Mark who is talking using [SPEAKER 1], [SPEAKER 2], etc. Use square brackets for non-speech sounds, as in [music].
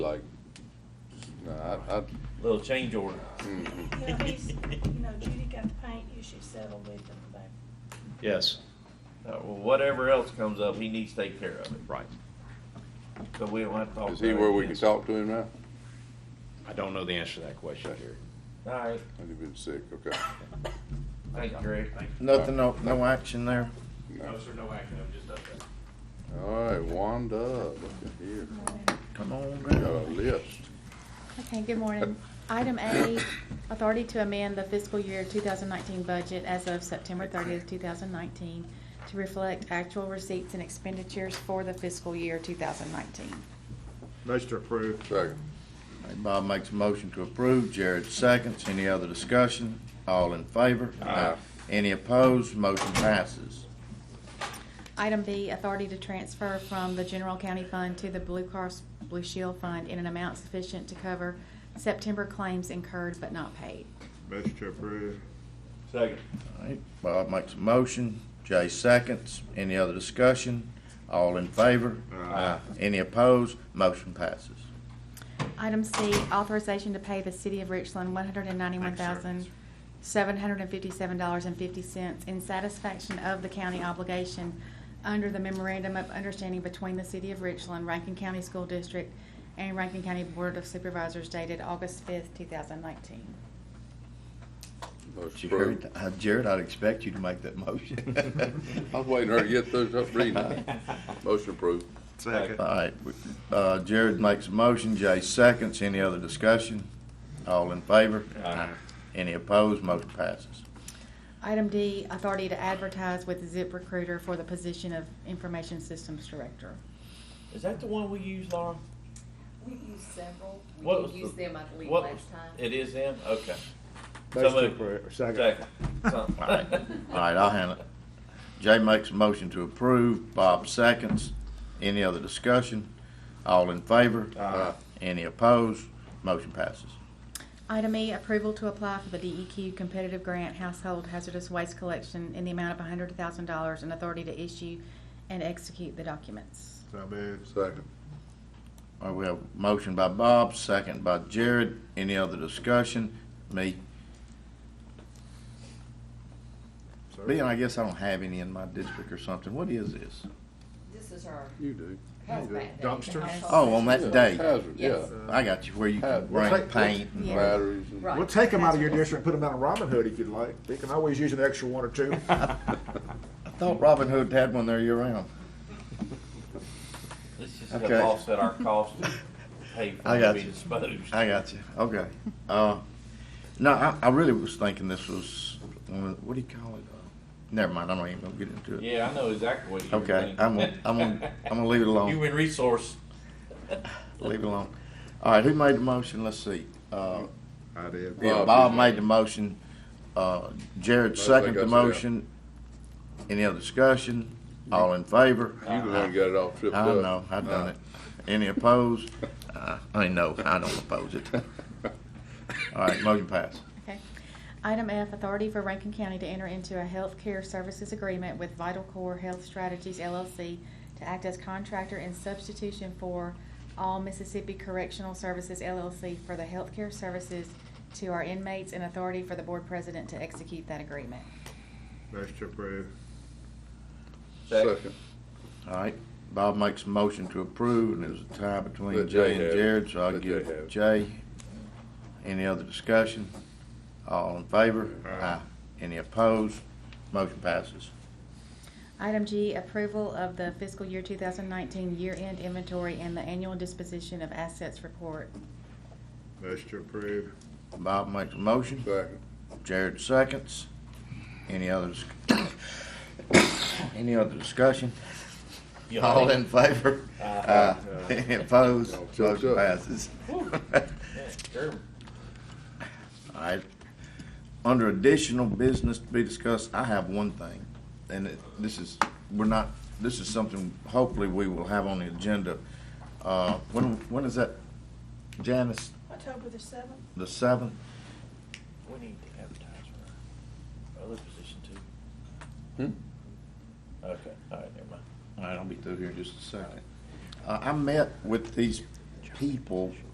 [SPEAKER 1] like, no, I, I,
[SPEAKER 2] Little change order.
[SPEAKER 1] mm-mm.
[SPEAKER 3] Yeah, he's, you know, Judy got the paint issue settled with them, but
[SPEAKER 2] Yes. Uh, well, whatever else comes up, he needs to take care of it.
[SPEAKER 4] Right.
[SPEAKER 2] So we don't have to talk.
[SPEAKER 1] is he
[SPEAKER 2] about it
[SPEAKER 1] where we can
[SPEAKER 2] again.
[SPEAKER 1] talk to him now?
[SPEAKER 4] I don't know the answer to that question, Jerry.
[SPEAKER 2] All right.
[SPEAKER 1] Has he been sick? Okay.
[SPEAKER 2] Thank you, Greg.
[SPEAKER 5] Nothing, no, no action there.
[SPEAKER 1] No.
[SPEAKER 6] sir, no action, I'm just updating.
[SPEAKER 1] All right, Wanda, look at here.
[SPEAKER 5] Come
[SPEAKER 1] We
[SPEAKER 5] on
[SPEAKER 1] got
[SPEAKER 5] down.
[SPEAKER 1] a list.
[SPEAKER 7] Okay, good morning. Item A, authority to amend the fiscal year 2019 budget as of September 30th, 2019, to reflect actual receipts and expenditures for the fiscal year 2019.
[SPEAKER 6] Motion to approve.
[SPEAKER 1] Second.
[SPEAKER 5] Bob makes a motion to approve, Jared seconds. Any other discussion? All in favor?
[SPEAKER 1] Aye.
[SPEAKER 5] Any opposed? Motion passes.
[SPEAKER 7] Item B, authority to transfer from the general county fund to the Blue Cross Blue Shield Fund in an amount sufficient to cover September claims incurred but not paid.
[SPEAKER 6] Motion to approve.
[SPEAKER 2] Second.
[SPEAKER 5] All right, Bob makes a motion, Jay seconds. Any other discussion? All in favor?
[SPEAKER 6] Aye.
[SPEAKER 5] Any opposed? Motion passes.
[SPEAKER 7] Item C, authorization to pay the City of Richland one hundred and ninety-one thousand, seven hundred and fifty-seven dollars and fifty cents in satisfaction of the county obligation under the memorandum of understanding between the City of Richland, Rankin County School District, and Rankin County Board of Supervisors dated August fifth, two thousand nineteen.
[SPEAKER 1] Motion approved.
[SPEAKER 5] Jared, uh, Jared, I'd expect you to make that motion.
[SPEAKER 1] [laughs]
[SPEAKER 5] [laughs]
[SPEAKER 1] I was waiting for her to get through something reading. Motion approved.
[SPEAKER 6] Second.
[SPEAKER 5] All right, uh, Jared makes a motion, Jay seconds, any other discussion? All in favor? Aye. Any opposed, motion passes.
[SPEAKER 7] Item D, authority to advertise with ZipRecruiter for the position of Information Systems Director.
[SPEAKER 2] Is that the one we used, Laura?
[SPEAKER 8] We used several.
[SPEAKER 2] What
[SPEAKER 8] We
[SPEAKER 2] was
[SPEAKER 8] didn't use
[SPEAKER 2] the-
[SPEAKER 8] them, I believe,
[SPEAKER 2] what
[SPEAKER 8] last
[SPEAKER 2] was-
[SPEAKER 8] time.
[SPEAKER 2] It is them? Okay. So
[SPEAKER 6] Motion to
[SPEAKER 2] moved.
[SPEAKER 6] approve.
[SPEAKER 2] Second.
[SPEAKER 5] All right, all right, I'll handle it. Jay makes a motion to approve, Bob seconds, any other discussion? All in favor?
[SPEAKER 6] Aye.
[SPEAKER 5] Any opposed, [laughs] motion passes.
[SPEAKER 7] Item E, approval to apply for the DEQ competitive grant household hazardous waste collection in the amount of hundred thousand dollars and authority to issue and execute the documents.
[SPEAKER 6] So moved.
[SPEAKER 1] Second.
[SPEAKER 5] All right, we have a motion by Bob, second by Jared, any other discussion? Me,
[SPEAKER 6] Sir.
[SPEAKER 5] being I guess I don't have any in my district or something, what is this?
[SPEAKER 8] This is our
[SPEAKER 1] You do.
[SPEAKER 8] hazmat day.
[SPEAKER 6] Dumpster?
[SPEAKER 5] Oh, on that day?
[SPEAKER 1] Hazard, yeah.
[SPEAKER 8] Yes.
[SPEAKER 5] I got you, where you
[SPEAKER 1] Uh,
[SPEAKER 5] can
[SPEAKER 1] we'll
[SPEAKER 5] bring
[SPEAKER 1] [laughs]
[SPEAKER 6] take-
[SPEAKER 5] paint and
[SPEAKER 7] Yeah.
[SPEAKER 1] Batteries and. [laughs]
[SPEAKER 8] Right.
[SPEAKER 6] We'll take them out of your district, put them out in Robin Hood if you'd like. They can always use an extra one or two.
[SPEAKER 5] [laughs] I thought Robin Hood had one there
[SPEAKER 4] [laughs]
[SPEAKER 5] year round.
[SPEAKER 2] Let's just
[SPEAKER 5] Okay.
[SPEAKER 2] help offset our cost and pay for
[SPEAKER 5] [laughs] I
[SPEAKER 2] it
[SPEAKER 5] got
[SPEAKER 2] to be
[SPEAKER 5] you.
[SPEAKER 2] disposed.
[SPEAKER 5] I got you. Okay. Uh, no, I, I really was thinking this was one of, what do you call it? Uh, never mind. I'm not even gonna get into it.
[SPEAKER 2] Yeah, I know exactly what you were
[SPEAKER 5] Okay.
[SPEAKER 2] thinking.
[SPEAKER 5] I'm gonna, I'm gonna,
[SPEAKER 2] [laughs]
[SPEAKER 5] I'm gonna leave it alone.
[SPEAKER 1] [laughs]
[SPEAKER 2] Human resource.
[SPEAKER 5] Leave it alone. All right. Who made the motion? Let's see. Uh,
[SPEAKER 6] I did.
[SPEAKER 5] yeah,
[SPEAKER 1] Bob,
[SPEAKER 5] Bob
[SPEAKER 1] you
[SPEAKER 5] made
[SPEAKER 1] made
[SPEAKER 5] the motion. Uh, Jared
[SPEAKER 1] Both
[SPEAKER 5] seconded the
[SPEAKER 1] goes
[SPEAKER 5] motion. Any other discussion? All in favor?
[SPEAKER 1] You the one got it all tripped
[SPEAKER 5] I
[SPEAKER 1] up. Uh.
[SPEAKER 5] know. I've done it. Any opposed? Uh, I mean, no, I don't oppose
[SPEAKER 1] [laughs]
[SPEAKER 5] it. All right. Motion passed.
[SPEAKER 7] Okay. Item F, authority for Rankin County to enter into a healthcare services agreement with Vital Core Health Strategies LLC to act as contractor in substitution for All Mississippi Correctional Services LLC for the healthcare services to our inmates and authority for the board president to execute that agreement.
[SPEAKER 6] Motion to approve.
[SPEAKER 1] Second.
[SPEAKER 5] All right, Bob makes a motion to approve, and it was a tie
[SPEAKER 1] Let Jay
[SPEAKER 5] between Jay
[SPEAKER 1] have
[SPEAKER 5] and
[SPEAKER 1] it.
[SPEAKER 5] Jared, so I'll
[SPEAKER 1] Let
[SPEAKER 5] give
[SPEAKER 1] Jay have
[SPEAKER 5] it
[SPEAKER 1] it.
[SPEAKER 5] to Jay. Any other discussion? All in favor?
[SPEAKER 6] Aye.
[SPEAKER 5] Any opposed? Motion passes.
[SPEAKER 7] Item G, approval of the fiscal year 2019 year-end inventory and the annual disposition of assets report.
[SPEAKER 6] Motion to approve.
[SPEAKER 5] Bob makes a motion,
[SPEAKER 1] Second.
[SPEAKER 5] Jared seconds. Any others? Any other discussion?
[SPEAKER 2] You
[SPEAKER 5] All
[SPEAKER 2] honey.
[SPEAKER 5] in favor?
[SPEAKER 2] Aye.
[SPEAKER 5] Aye. Any opposed?
[SPEAKER 1] Y'all choked
[SPEAKER 5] Motion
[SPEAKER 1] up.
[SPEAKER 5] passes. [laughs]
[SPEAKER 2] Yeah, sure.
[SPEAKER 5] All right. Under additional business to be discussed, I have one thing, and it- this is, we're not, this is something hopefully we will have on the agenda. Uh, when, when is that? Janice,
[SPEAKER 3] October the seventh,
[SPEAKER 5] the seventh?
[SPEAKER 2] We need to advertise for our other position too.
[SPEAKER 1] Hmm?
[SPEAKER 2] Okay, all right, never mind.
[SPEAKER 5] All right, I'll be through here in just a second. Uh, I met with these people